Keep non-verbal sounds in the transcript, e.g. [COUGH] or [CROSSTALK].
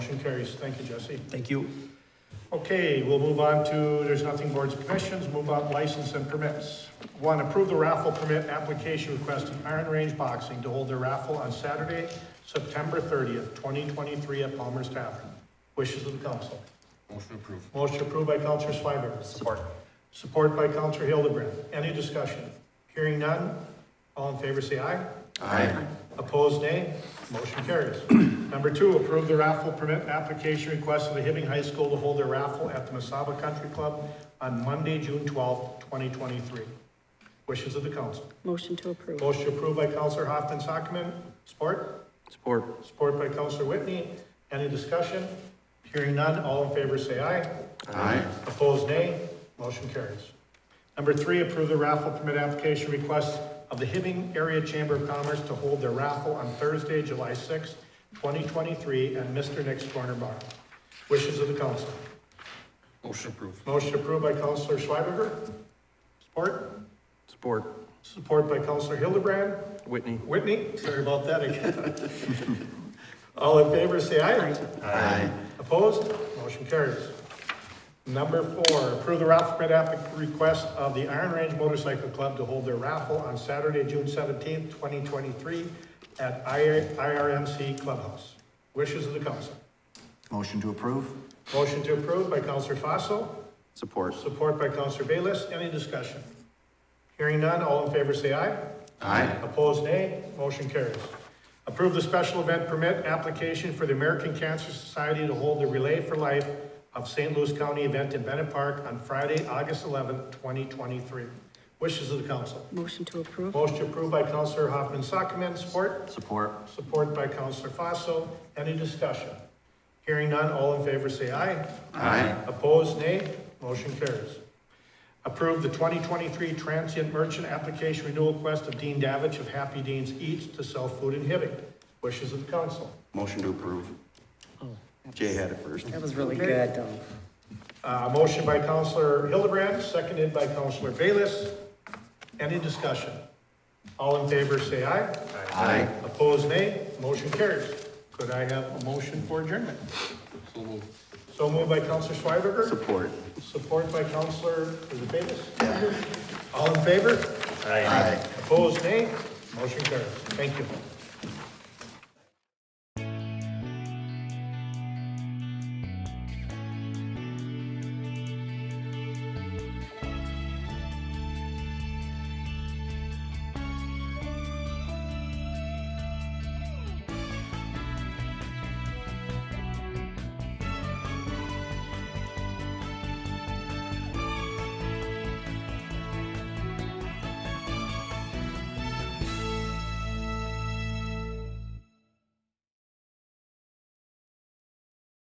Motion carries. Thank you, Jesse. Thank you. Okay, we'll move on to, there's nothing boards and commissions, move on license and permits. One, approve the raffle permit application requesting Iron Range Boxing to hold their raffle on Saturday, September thirtieth, twenty twenty-three at Palmer's Tavern. Wishes of the council. Motion approved. Motion approved by Counselor Schweberger. Support. Support by Counselor Hildebrand. Any discussion? Hearing none, all in favor say aye. Aye. Opposed, nay. Motion carries. [CLEARS THROAT] Number two, approve the raffle permit application request of the Hibbing High School to hold their raffle at the Masaba Country Club on Monday, June twelfth, twenty twenty-three. Wishes of the council. Motion to approve. Motion approved by Counselor Hoffman Sockman. Support? Support. Support by Counselor Whitney. Any discussion? Hearing none, all in favor say aye. Aye. Opposed, nay. Motion carries. Number three, approve the raffle permit application request of the Hibbing Area Chamber of Commerce to hold their raffle on Thursday, July sixth, twenty twenty-three, at Mr. Nick's Corner Bar. Wishes of the council. Motion approved. Motion approved by Counselor Schweberger. Support? Support. Support by Counselor Hildebrand. Whitney. Whitney, sorry about that again. All in favor, say aye. Aye. Opposed? Motion carries. Number four, approve the raffle permit applic- request of the Iron Range Motorcycle Club to hold their raffle on Saturday, June seventeenth, twenty twenty-three at I- IRMC Clubhouse. Wishes of the council. Motion to approve? Motion to approve by Counselor Fossil, Support. support by Counselor Bayless. Any discussion? Hearing none, all in favor say aye. Aye. Opposed, nay. Motion carries. Approve the special event permit application for the American Cancer Society to hold the Relay for Life of St. Louis County event in Bennett Park on Friday, August eleventh, twenty twenty-three. Wishes of the council. Motion to approve. Motion approved by Counselor Hoffman Sockman, support? Support. Support by Counselor Fossil. Any discussion? Hearing none, all in favor say aye. Aye. Opposed, nay. Motion carries. Approve the 2023 transient merchant application renewal request of Dean Davich of Happy Dean's Eats to sell food in Hibbing. Wishes of the council. Motion to approve. Jay had it first. That was really good, though. Uh, motion by Counselor Hildebrand, seconded by Counselor Bayless. Any discussion? All in favor, say aye. Aye. Opposed, nay. Motion carries. Could I have a motion for adjournment? So moved. So moved by Counselor Schweberger. Support. Support by Counselor, is it Davis? All in favor? Aye. Opposed, nay? Motion carries. Thank you.